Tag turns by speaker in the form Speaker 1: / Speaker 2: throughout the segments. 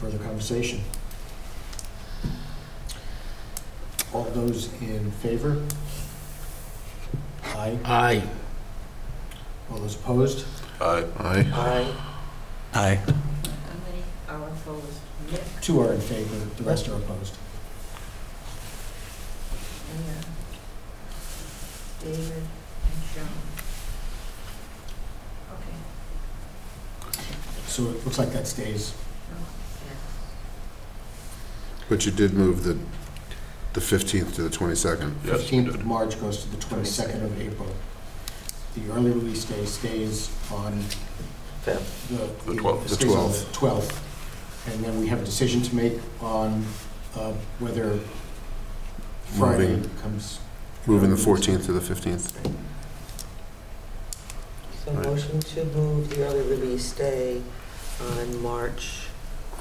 Speaker 1: Further conversation? All those in favor? Aye.
Speaker 2: Aye.
Speaker 1: All those opposed?
Speaker 3: Aye. Aye.
Speaker 4: Aye.
Speaker 2: Aye.
Speaker 4: How many are opposed? Nick
Speaker 1: Two are in favor, the rest are opposed.
Speaker 4: and uh, David and Sean. Okay.
Speaker 1: So it looks like that stays.
Speaker 4: no, yeah.
Speaker 3: But you did move the, the 15th to the 22nd.
Speaker 1: 15th of March goes to the 22nd of April. The early release day stays on the...
Speaker 3: The 12th.
Speaker 1: stays on the 12th. And then we have a decision to make on uh, whether Friday
Speaker 3: Moving.
Speaker 1: comes...
Speaker 3: Moving the 14th to the 15th.
Speaker 5: So
Speaker 3: Right.
Speaker 5: motion to move the early release day on March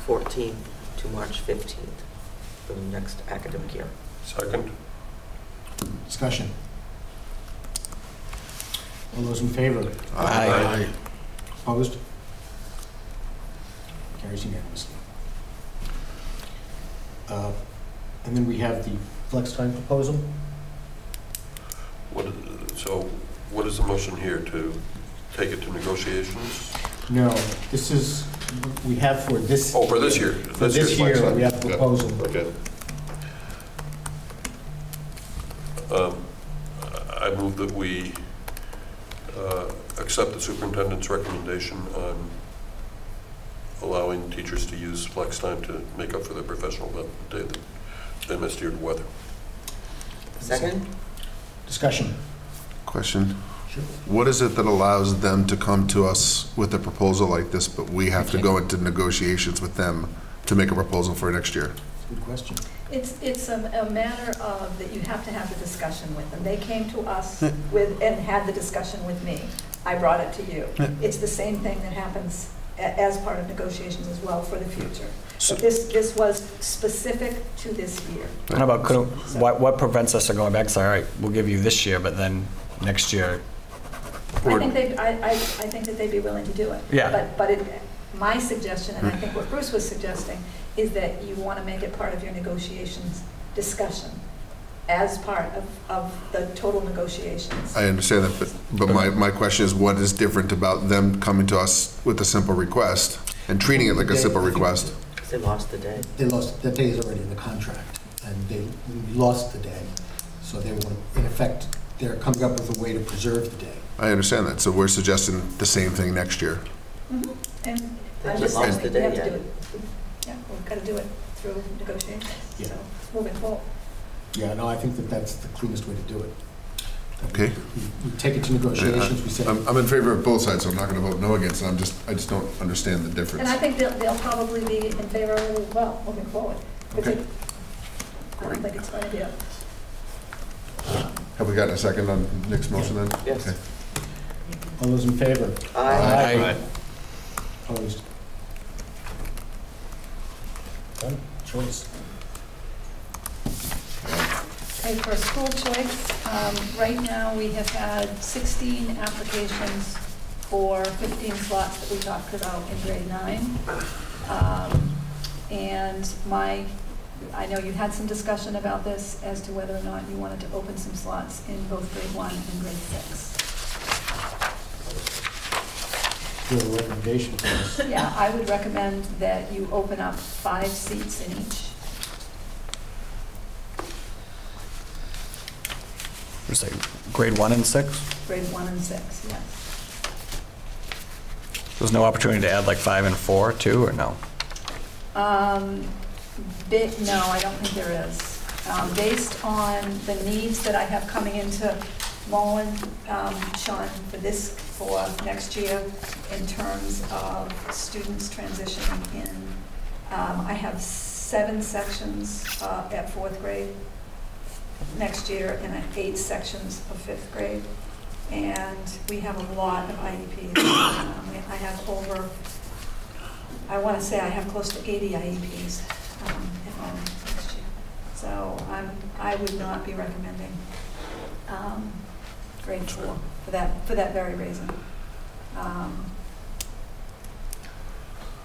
Speaker 5: 14th to March 15th for the next academic year.
Speaker 3: Second.
Speaker 1: Discussion. All those in favor?
Speaker 2: Aye.
Speaker 1: Opposed? Carries unanimously. Uh, And then we have the flex time proposal.
Speaker 6: What, so what is the motion here, to take it to negotiations?
Speaker 1: No, this is, we have for this,
Speaker 6: Oh, for this year?
Speaker 1: for this
Speaker 6: year's flex
Speaker 1: year,
Speaker 6: time.
Speaker 1: we have a proposal.
Speaker 6: Okay. Um, I move that we uh, accept the superintendent's recommendation on allowing teachers to use flex time to make up for their professional day that they missed due to weather.
Speaker 5: Second?
Speaker 1: Discussion.
Speaker 3: Question.
Speaker 1: Sure.
Speaker 3: What is it that allows them to come to us with a proposal like this, but we have to go into negotiations with them to make a proposal for next year?
Speaker 1: Good question.
Speaker 7: It's, it's a a matter of that you have to have the discussion with them. They came to us with, and had the discussion with me. I brought it to you. It's the same thing that happens a- as part of negotiations as well for the future.
Speaker 2: So-
Speaker 7: But this, this was specific to this year.
Speaker 2: How about, couldn't, what, what prevents us from going back, say, all right, we'll give you this year, but then next year?
Speaker 7: I think they, I, I, I think that they'd be willing to do it.
Speaker 2: Yeah.
Speaker 7: But, but it, my suggestion, and I think what Bruce was suggesting, is that you want to make it part of your negotiations discussion as part of, of the total negotiations.
Speaker 3: I understand that, but, but my, my question is, what is different about them coming to us with a simple request and treating it like a simple request?
Speaker 5: They lost the day.
Speaker 1: They lost, that day is already in the contract, and they lost the day, so they want, in effect, they're coming up with a way to preserve the day.
Speaker 3: I understand that, so we're suggesting the same thing next year.
Speaker 7: Mhm. And
Speaker 5: They
Speaker 7: I'm
Speaker 5: just
Speaker 7: just
Speaker 5: lost
Speaker 7: saying, we
Speaker 5: the
Speaker 7: have
Speaker 5: day,
Speaker 7: to do it. Yeah, we've got to do it through negotiations,
Speaker 1: Yeah.
Speaker 7: so moving forward.
Speaker 1: Yeah, no, I think that that's the cleanest way to do it.
Speaker 3: Okay. um,
Speaker 1: We- We take it to negotiations, we say,
Speaker 3: I'm, I'm in favor of both sides, so I'm not gonna vote no against it, I'm just, I just don't understand the difference.
Speaker 7: And I think they'll, they'll probably be in favor of it as well, moving forward. Because
Speaker 3: Okay.
Speaker 7: I don't think it's going to be a
Speaker 3: Have we gotten a second on Nick's motion then?
Speaker 5: Yes.
Speaker 3: Okay.
Speaker 1: all those in favor?
Speaker 5: Aye.
Speaker 2: Aye.
Speaker 1: Opposed? Done, choice.
Speaker 7: Okay, for school choice, um, right now, we have had 16 applications for 15 slots that we talked about in grade nine. Um, And my, I know you had some discussion about this as to whether or not you wanted to open some slots in both grade one and grade six.
Speaker 1: Do you have a recommendation for us?
Speaker 7: Yeah, I would recommend that you open up five seats in each.
Speaker 2: It's like grade one and six?
Speaker 7: grade one and six, yes.
Speaker 2: There's no opportunity to add like five and four, too, or no?
Speaker 7: Um, bit, no, I don't think there is. Um, based on the needs that I have coming into Mullen, um, Sean, for this, for next year, in terms of students transitioning in, um, I have seven sections, uh, at fourth grade next year, and I- eight sections of fifth grade. And we have a lot of IEPs. Um, I have over I want to say I have close to 80 IEPs um, at home next year. So I'm, I would not be recommending um, grade four for that, for that very reason. Um,